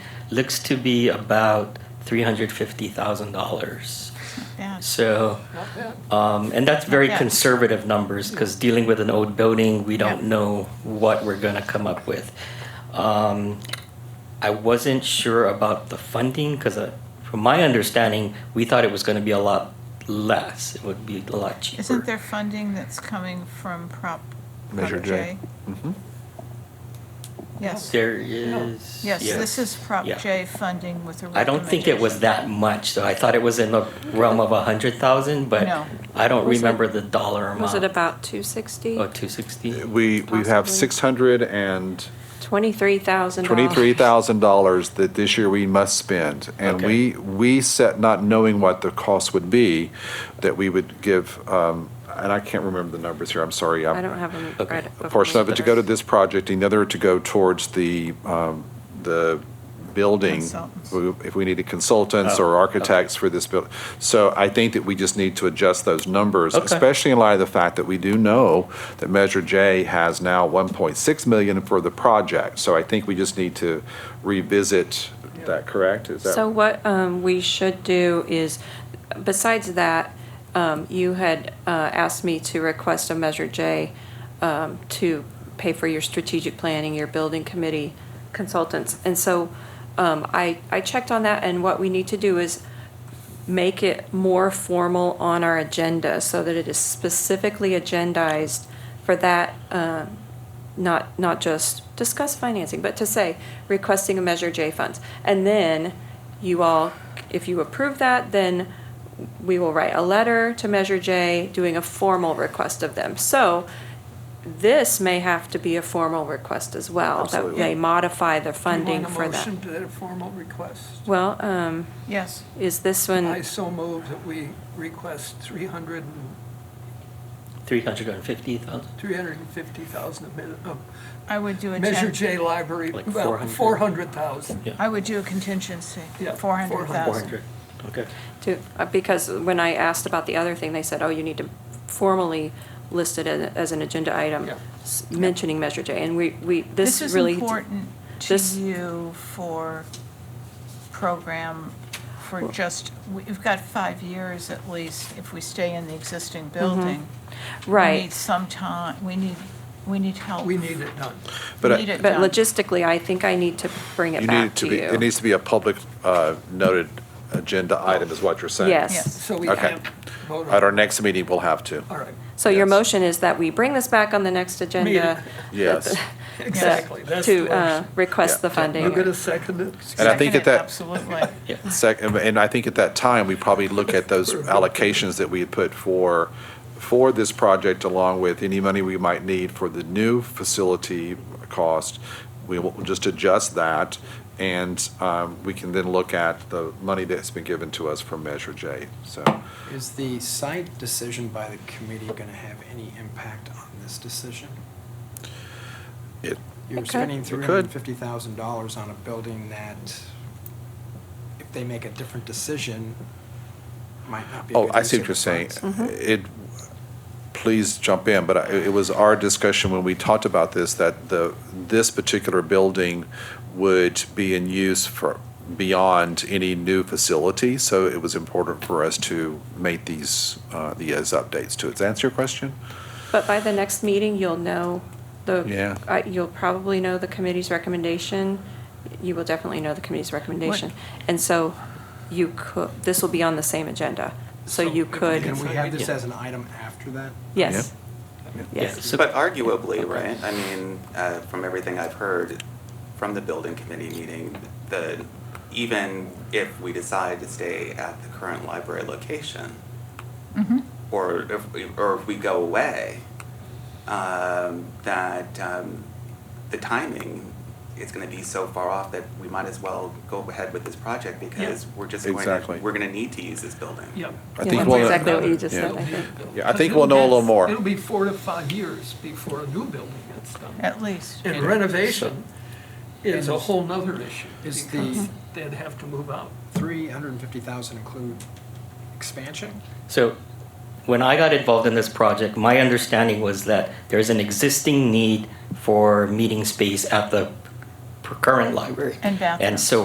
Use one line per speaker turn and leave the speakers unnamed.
looks to be about three hundred fifty thousand dollars.
bad.
So, um, and that's very
bad.
conservative numbers because dealing with an old building, we don't
Yeah.
know what we're going to come up with. Um, I wasn't sure about the funding because, uh, from my understanding, we thought it was going to be a lot less. It would be a lot cheaper.
Isn't there funding that's coming from Prop? Prop
Measure J.
Mm-hmm.
Mhm.
Yes,
There is.
yes, this is Prop
Yeah.
J funding with a
I don't think it was that
recommendation.
much, so I thought it was in the realm of a hundred thousand, but
No.
I don't
Was it-
remember the dollar amount.
Was it about
Oh,
260?
two sixty?
We, we have
Possibly.
six hundred and
$23,000.
twenty-three thousand dollars that this year we must spend. And
Okay.
we, we set, not knowing what the cost would be, that we would give, um, and I can't remember the numbers here, I'm sorry. I'm-
I don't have them
Okay.
right.
A portion of it to go to
this.
this project, another to go towards the, um, the building.
Consultants.
If we needed consultants
Oh,
or
okay.
architects for this building. So I think that we just need to adjust those numbers,
Okay.
especially in light of the fact that we do know that Measure J has now 1.6 million for the project. So I think we just need to revisit that, correct? Is that-
So what um, we should do is, besides that, um, you had uh, asked me to request a Measure J um, to pay for your strategic planning, your building committee consultants. And so um, I, I checked on that, and what we need to do is make it more formal on our agenda so that it is specifically agendized for that um, not, not just discuss financing, but to say requesting a Measure J funds. And then you all, if you approve that, then we will write a letter to Measure J doing a formal request of them. So this may have to be a formal request as well.
Absolutely.
That they modify the funding
You
for
want a
that.
motion to that formal request?
Well, um,
Yes,
is this one?
I so move that we request 300, and-
Three hundred and fifty thousand?
350,000 of mi- of
I would do a.
Measure
gen-
J library,
Like
well,
400.
400,000.
Yeah.
I would do a contingency,
Yeah,
four hundred
400,000.
Four
thousand.
hundred, okay.
To, uh, because when I asked about the other thing, they said, oh, you need to formally list it as, as an agenda item,
Yeah.
s- mentioning Measure J, and we, we, this
is
really.
important to
this-
you for program, for just, we've got five years at least, if we stay in the existing
Mm-hmm.
building. We need
Right,
some time, we need, we need help.
We need it done.
But I-
Need it
but
done.
logistically, I think I need to bring it
You need
back
it
to
be- It
you.
needs to be a public uh, noted agenda item is what you're saying.
Yes,
Yes.
So we
Okay.
can't vote on
At our
it.
next meeting, we'll have to.
All right,
so your
Yes.
motion is that we bring this back on the next agenda.
Yes.
exactly. That's the
To, uh,
motion.
request
Yeah.
the funding.
You gonna second it?
And I
Second
think that
it,
that-
Absolutely.
Second, and I think at that time, we probably look at those allocations that we had put for, for this project along with any money we might need for the new facility cost. We will just adjust that and um, we can then look at the money that's been given to us from Measure J. So
Is the site decision by the committee going to have any impact on this decision?
it,
You're
It could.
spending
It
three
could.
hundred and fifty thousand dollars on a building that, if they make a different decision, might not be a
oh,
good
I
use
see
of
what
the
you're saying. Uh,
funds.
It, please jump in, but I- it was our discussion when we talked about this, that the, this particular building would be in use for, beyond any new facility, so it was important for us to make these, uh, these updates to it. Does that answer your question?
But by the next meeting, you'll know the.
Yeah.
uh, You'll probably know the committee's recommendation. You will definitely know the committee's recommendation. And so you could, this will be on the same agenda. So you
Can
could,
we have this as an item after that?
yes,
Yeah,
yes.
so-
But arguably, right, I mean, uh, from everything I've heard from the building committee meeting, the, even if we decide to stay at the current library location,
Mhm.
or if, we- or if we go away, um, that, um, the timing is gonna be so far off that we might as well go ahead with this project because we're just going
Exactly.
to, we're gonna need to use this building.
Yeah.
I
Yeah,
think
that's
we'll-
exactly what you just
yeah.
said, I think.
Yeah, I think we'll know a little more.
It'll be four to five years before a new building gets done.
At least.
And renovation is a whole nother issue,
Is
because
the-
they'd have to move out.
Three hundred and fifty thousand include expansion?
So when I got involved in this project, my understanding was that there's an existing need for meeting space at the p- current library.
And bathrooms.
And so